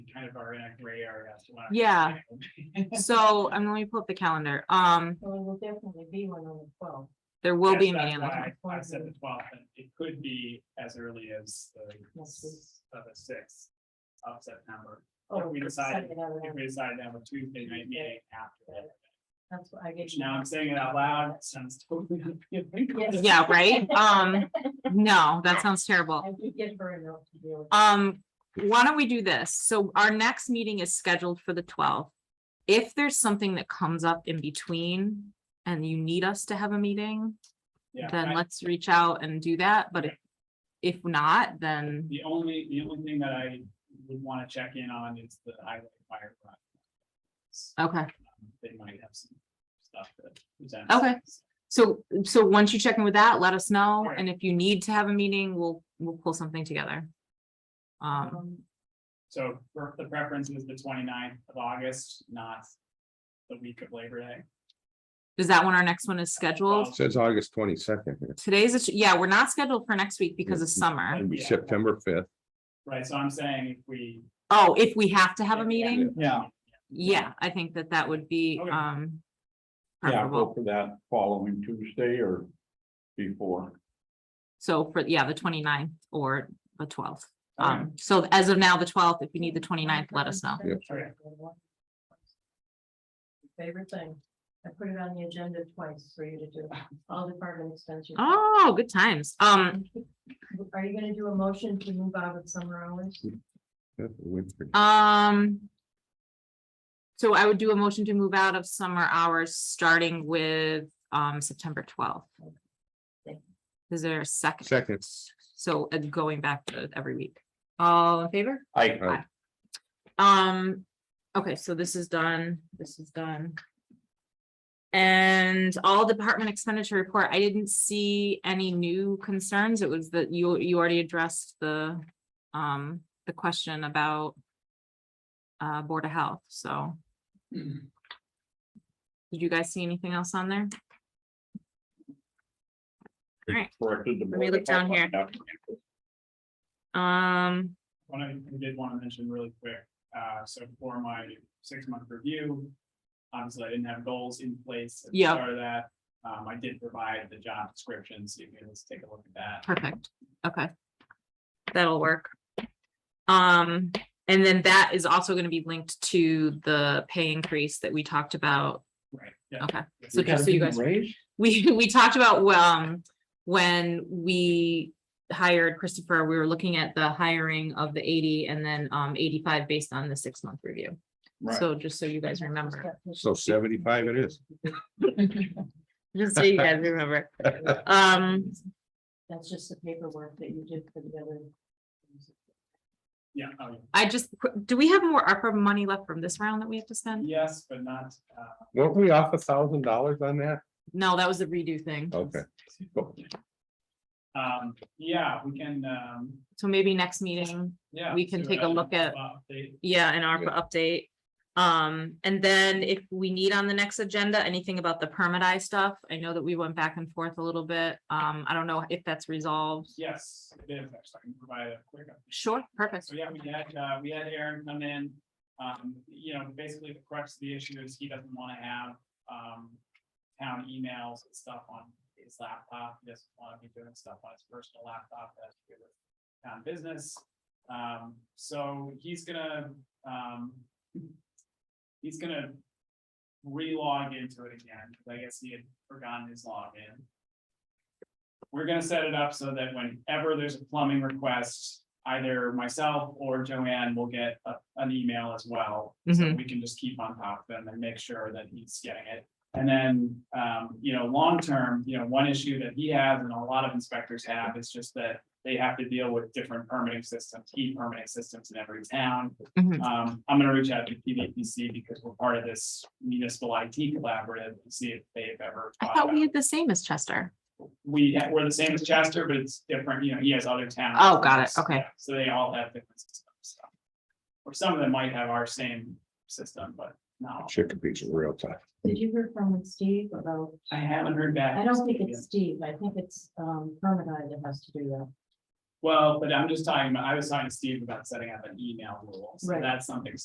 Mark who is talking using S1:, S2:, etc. S1: kind of are in a gray area. so I-
S2: Yeah. So I'm let me pull up the calendar. Um,
S3: Well, it will definitely be one on the twelfth.
S2: there will be
S1: Yes,
S2: a
S1: that's
S2: meeting. on the
S1: why
S2: twelfth.
S1: I I said the twelfth, and it could be as early as the, s- uh, the sixth of September.
S3: Oh,
S1: we
S3: it's
S1: decided
S3: Saturday, I don't
S1: If
S3: know.
S1: we decide to have a Tuesday night meeting after that,
S3: That's what I get.
S1: which now I'm saying it out loud, it sounds totally. unappealing.
S2: Yeah, right? Um, no, that sounds terrible.
S3: I did get her enough to deal with.
S2: Um, why don't we do this? So our next meeting is scheduled for the twelfth. If there's something that comes up in between and you need us to have a meeting,
S1: Yeah,
S2: then
S1: I-
S2: let's reach out and do that. But if- if not, then
S1: The only, the only thing that I would want to check in on is the highway fire. project.
S2: Okay,
S1: They might have some stuff that. is on-
S2: Okay. so, so once you check in with that, let us know,
S1: Alright.
S2: and if you need to have a meeting, we'll, we'll pull something together. Um,
S3: Um,
S1: So for- the preference is the 29th of August, not the week of Labor Day.
S2: is that when our next one is scheduled?
S1: Well,
S4: Says August twenty-second,
S2: Today's, a- yeah, we're not scheduled for next week because of summer.
S4: it'd be
S1: Yeah.
S4: September fifth.
S1: Right, so I'm saying if we.
S2: Oh, if we have to have a
S1: if we
S2: meeting,
S5: Yeah,
S2: yeah, I think that that would be,
S1: Okay.
S2: um.
S5: yeah, go
S2: Preferable,
S5: for that following Tuesday or before.
S2: so for, yeah, the 29th or the twelfth.
S5: Okay.
S2: Um, so as of now, the twelfth, if you need the 29th, let us know.
S1: Yep.
S3: Favorite thing, I put it on the agenda twice for you to do, all department extensions.
S2: Oh, good times. Um,
S3: Are you gonna do a motion to move out of summer hours?
S2: Um. So I would do a motion to move out of summer hours, starting with um September twelfth. Is there a second?
S4: Seconds.
S2: So uh, going back to every week. All in favor?
S5: I,
S2: Um, okay, so this is done, this is done. And all department expenditure report, I didn't see any new concerns. It was that you, you already addressed the, um, the question about uh, Board of Health, so did you guys see anything else on there?
S5: corrected the.
S2: Let me look down here. Um,
S1: One I did want to mention really quick, uh, so for my six-month review, obviously I didn't have goals in place. at the
S2: Yeah.
S1: start of that, um, I did provide the job description, so you can just take a look at that.
S2: perfect, okay. That'll work. Um, and then that is also gonna be linked to the pay increase that we talked about
S1: Right, yeah.
S2: Okay, so just so you guys, we, we talked about, well, um, when we hired Christopher, we were looking at the hiring of the eighty and then, um, eighty-five based on the six-month review.
S5: Right,
S2: So just so you guys remember,
S4: So seventy-five it is.
S2: just so you guys remember, um,
S3: That's just the paperwork that you did for the other.
S1: Yeah, oh, yeah.
S2: I just, do we have more ARPA money left from this round that we have to spend?
S1: yes, but not, uh,
S4: Weren't we off a thousand dollars on that?
S2: No, that was the redo thing.
S4: Okay,
S1: um, yeah, we can, um,
S2: So maybe next meeting,
S1: yeah.
S2: We can
S1: so
S2: take a
S1: I-
S2: look at-
S1: well, they-
S2: yeah, an ARPA update. Um, and then if we need on the next agenda, anything about the permit I stuff, I know that we went back and forth a little bit. Um, I don't know if that's resolved.
S1: Yes, it is, actually, I can provide a quick update.
S2: Sure, perfect.
S1: So yeah, we had, uh, we had Aaron come in, um, you know, basically the crux of the issue is he doesn't wanna have, um. Town emails and stuff on his laptop, he doesn't wanna be doing stuff on his personal laptop that's good with town business. Um, so he's gonna, um. He's gonna re-log into it again, because I guess he had forgotten his login. We're gonna set it up so that whenever there's a plumbing request, either myself or Joanne will get a, an email as well. So
S2: Mhm.
S1: we can just keep on top of them and make sure that he's getting it. And then, um, you know, long-term, you know, one issue that he has and a lot of inspectors have is just that they have to deal with different permitting systems, key permitting systems in every town.
S2: Mhm.
S1: Um, I'm gonna reach out to PVPC because we're part of this municipal IT collaborative and see if they've ever.
S2: I
S1: thought
S2: thought we
S1: about-
S2: had the same as Chester.
S1: we, we're the same as Chester, but it's different, you know, he has other towns.
S2: Oh, got it. Okay.
S1: Yeah, So they all have different systems, so. Or some of them might have our same system, but no,
S4: chicken beach in real time.
S3: Did you hear from Steve about,
S1: I haven't heard back.
S3: I don't think it's Steve, I think it's um Permadi that has to do that.
S1: Well, but I'm just talking about, I was talking to Steve about setting up an email rule, so
S3: Right.
S1: that's something